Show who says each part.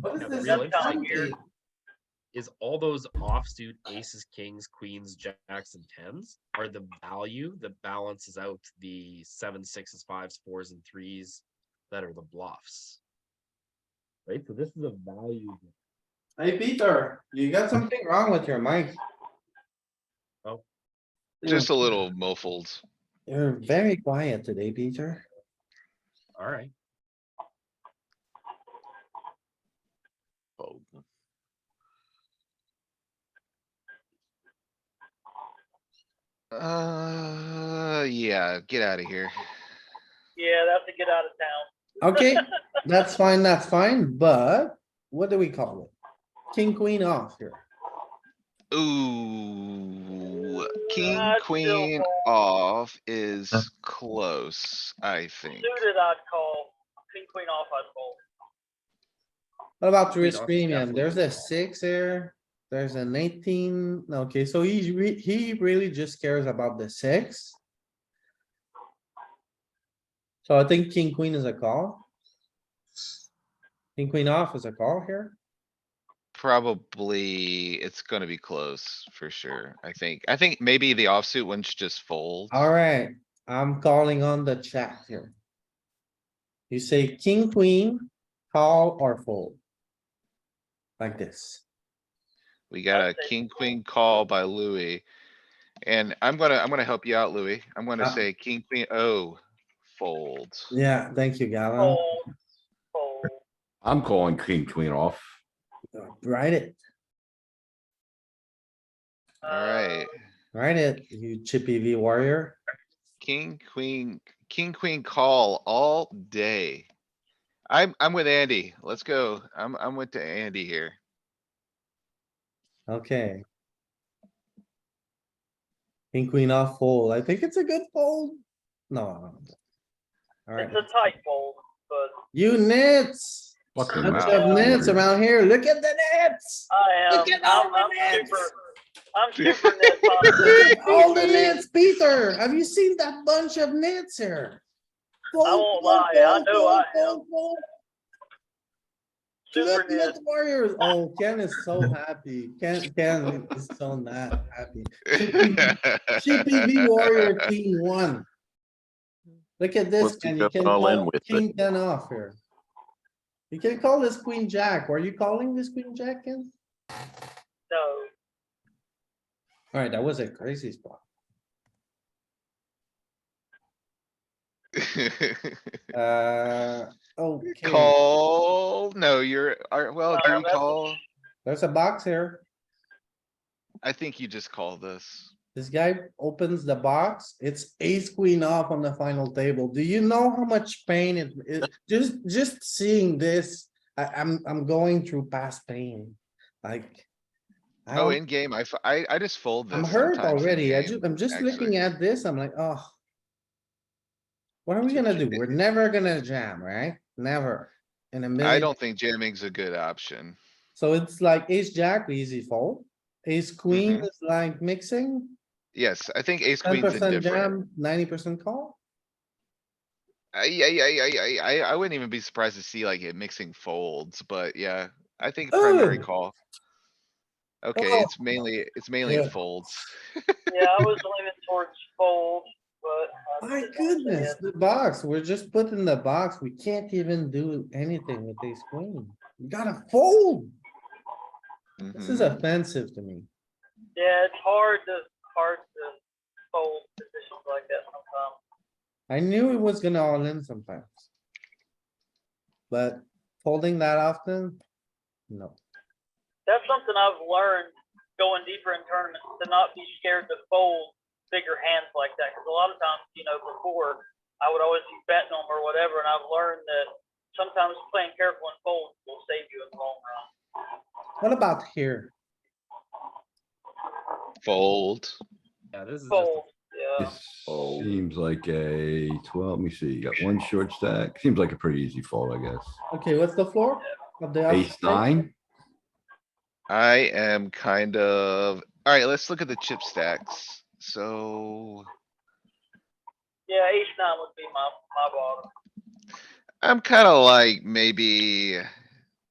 Speaker 1: What is
Speaker 2: No,
Speaker 1: this?
Speaker 2: really?
Speaker 1: uptown
Speaker 2: Like, you're-
Speaker 1: game?
Speaker 2: is all those offsuit aces, kings, queens, jacks, and tens are the value that balances out the seven, sixes, fives, fours, and threes that are the bluffs. Right, so this is a value. game.
Speaker 1: Hey, Peter, you got something wrong with your mic.
Speaker 2: Oh.
Speaker 3: Just a little muffled.
Speaker 1: You're very quiet today, Peter.
Speaker 2: All right,
Speaker 3: Fold. Uh, yeah, get out of here.
Speaker 4: Yeah, they have to get out of town.
Speaker 1: Okay, that's fine, that's fine, but what do we call it? King, queen off here.
Speaker 3: Ooh, king,
Speaker 4: That's still
Speaker 3: queen
Speaker 4: bad.
Speaker 3: off is close, I think.
Speaker 4: Suited, I'd call. King, queen off, I'd call.
Speaker 1: What about
Speaker 2: Queen
Speaker 1: three
Speaker 2: off is
Speaker 1: premium?
Speaker 2: definitely
Speaker 1: There's
Speaker 2: the
Speaker 1: a
Speaker 2: call.
Speaker 1: six here. There's an eighteen. Okay, so he's re- he really just cares about the six. So I think king, queen is a call. King, queen off is a call here.
Speaker 3: Probably, it's gonna be close for sure, I think. I think maybe the offsuit one should just fold.
Speaker 1: Uh, Alright, I'm calling on the chat here. You say king, queen, call or fold. Like this.
Speaker 3: We got
Speaker 4: I'd
Speaker 3: a
Speaker 4: say
Speaker 3: king,
Speaker 4: fold.
Speaker 3: queen call by Louis. And I'm gonna, I'm gonna help you out, Louis. I'm gonna
Speaker 1: Uh.
Speaker 3: say king, queen, oh, fold.
Speaker 1: Yeah, thank you, Gavin.
Speaker 4: Fold, fold.
Speaker 5: I'm calling king queen off.
Speaker 1: Write it,
Speaker 3: Alright,
Speaker 1: write it, you chippy V warrior.
Speaker 3: king, queen, king, queen call all day. I'm, I'm with Andy. Let's go. I'm, I'm with the Andy here.
Speaker 1: Okay. King, queen off fold. I think it's a good fold. No.
Speaker 4: Uh,
Speaker 1: Alright,
Speaker 4: It's a tight fold, but
Speaker 1: you nits.
Speaker 5: Fucking
Speaker 1: Bunch
Speaker 3: Wow.
Speaker 1: of nits around here. Look at the nits.
Speaker 4: I am,
Speaker 1: Look at all
Speaker 4: I'm,
Speaker 1: the
Speaker 4: I'm
Speaker 1: nets.
Speaker 4: super, I'm super net positive.
Speaker 1: All the nits, Peter, have you seen that bunch of nits here?
Speaker 4: I won't lie, I know I am. Super
Speaker 1: Look,
Speaker 4: net.
Speaker 1: look, Warriors, oh, Ken is so happy, Ken, Ken is so not happy. CPV Warrior Team One. Look at this,
Speaker 6: Let's
Speaker 1: Ken, you
Speaker 6: go
Speaker 1: can
Speaker 6: all in
Speaker 1: call
Speaker 6: with it.
Speaker 1: king ten off here. You can call this queen jack, were you calling this queen jack, Ken?
Speaker 4: No,
Speaker 1: Alright, that was a crazy spot, uh, okay,
Speaker 3: Call, no, you're, are, well, do
Speaker 4: Uh,
Speaker 3: you
Speaker 4: that's-
Speaker 3: call?
Speaker 1: there's a box here.
Speaker 3: I think you just call this.
Speaker 1: This guy opens the box, it's ace queen off on the final table. Do you know how much pain it is? Just, just seeing this, I, I'm, I'm going through past pain, like. I
Speaker 3: Oh,
Speaker 1: don't-
Speaker 3: in game, I, f- I- I just fold this.
Speaker 1: I'm hurt
Speaker 3: sometimes in
Speaker 1: already. I
Speaker 3: game,
Speaker 1: just, I'm just
Speaker 3: actually.
Speaker 1: looking at this. I'm like, oh. What are we gonna do? We're never gonna jam, right? Never. In a
Speaker 3: I
Speaker 1: minute.
Speaker 3: don't think jamming's a good option.
Speaker 1: So it's like ace jack, easy fold. Ace queen
Speaker 3: Mhm.
Speaker 1: is like mixing,
Speaker 3: Yes, I think ace
Speaker 1: ten
Speaker 3: queen's
Speaker 1: percent
Speaker 3: indifferent.
Speaker 1: jam, ninety percent call.
Speaker 3: I, I, I, I, I, I wouldn't even be surprised to see like it mixing folds, but yeah, I think primary
Speaker 1: Ugh.
Speaker 3: call. Okay,
Speaker 1: Oh.
Speaker 3: it's mainly, it's mainly
Speaker 1: Yeah.
Speaker 3: folds.
Speaker 4: yeah, I was leaning towards fold, but. I
Speaker 1: My
Speaker 4: didn't say
Speaker 1: goodness,
Speaker 4: it.
Speaker 1: the box, we're just put in the box. We can't even do anything with ace queen. You gotta fold. This is
Speaker 5: Hmm.
Speaker 3: Mhm.
Speaker 1: offensive to me.
Speaker 4: Yeah, it's hard to, hard to fold positions like that sometimes.
Speaker 1: I knew it was gonna all in sometimes. But folding that often? No.
Speaker 4: That's something I've learned going deeper in tournaments to not be scared to fold bigger hands like that. Because a lot of times, you know, before I would always be betting them or whatever, and I've learned that sometimes playing careful and fold will save you in the long run.
Speaker 1: What about here?
Speaker 3: Fold.
Speaker 2: yeah, this is just a
Speaker 4: Fold, yeah.
Speaker 5: This
Speaker 6: Oh.
Speaker 5: seems like a twelve, let me see, you got one short stack, seems like a pretty easy fold, I guess.
Speaker 1: Okay, what's the floor? of the
Speaker 5: Ace
Speaker 1: offsuit?
Speaker 5: nine,
Speaker 3: I am kind of, alright, let's look at the chip stacks. So
Speaker 4: Yeah, ace nine would be my, my bottom.
Speaker 3: I'm kinda like maybe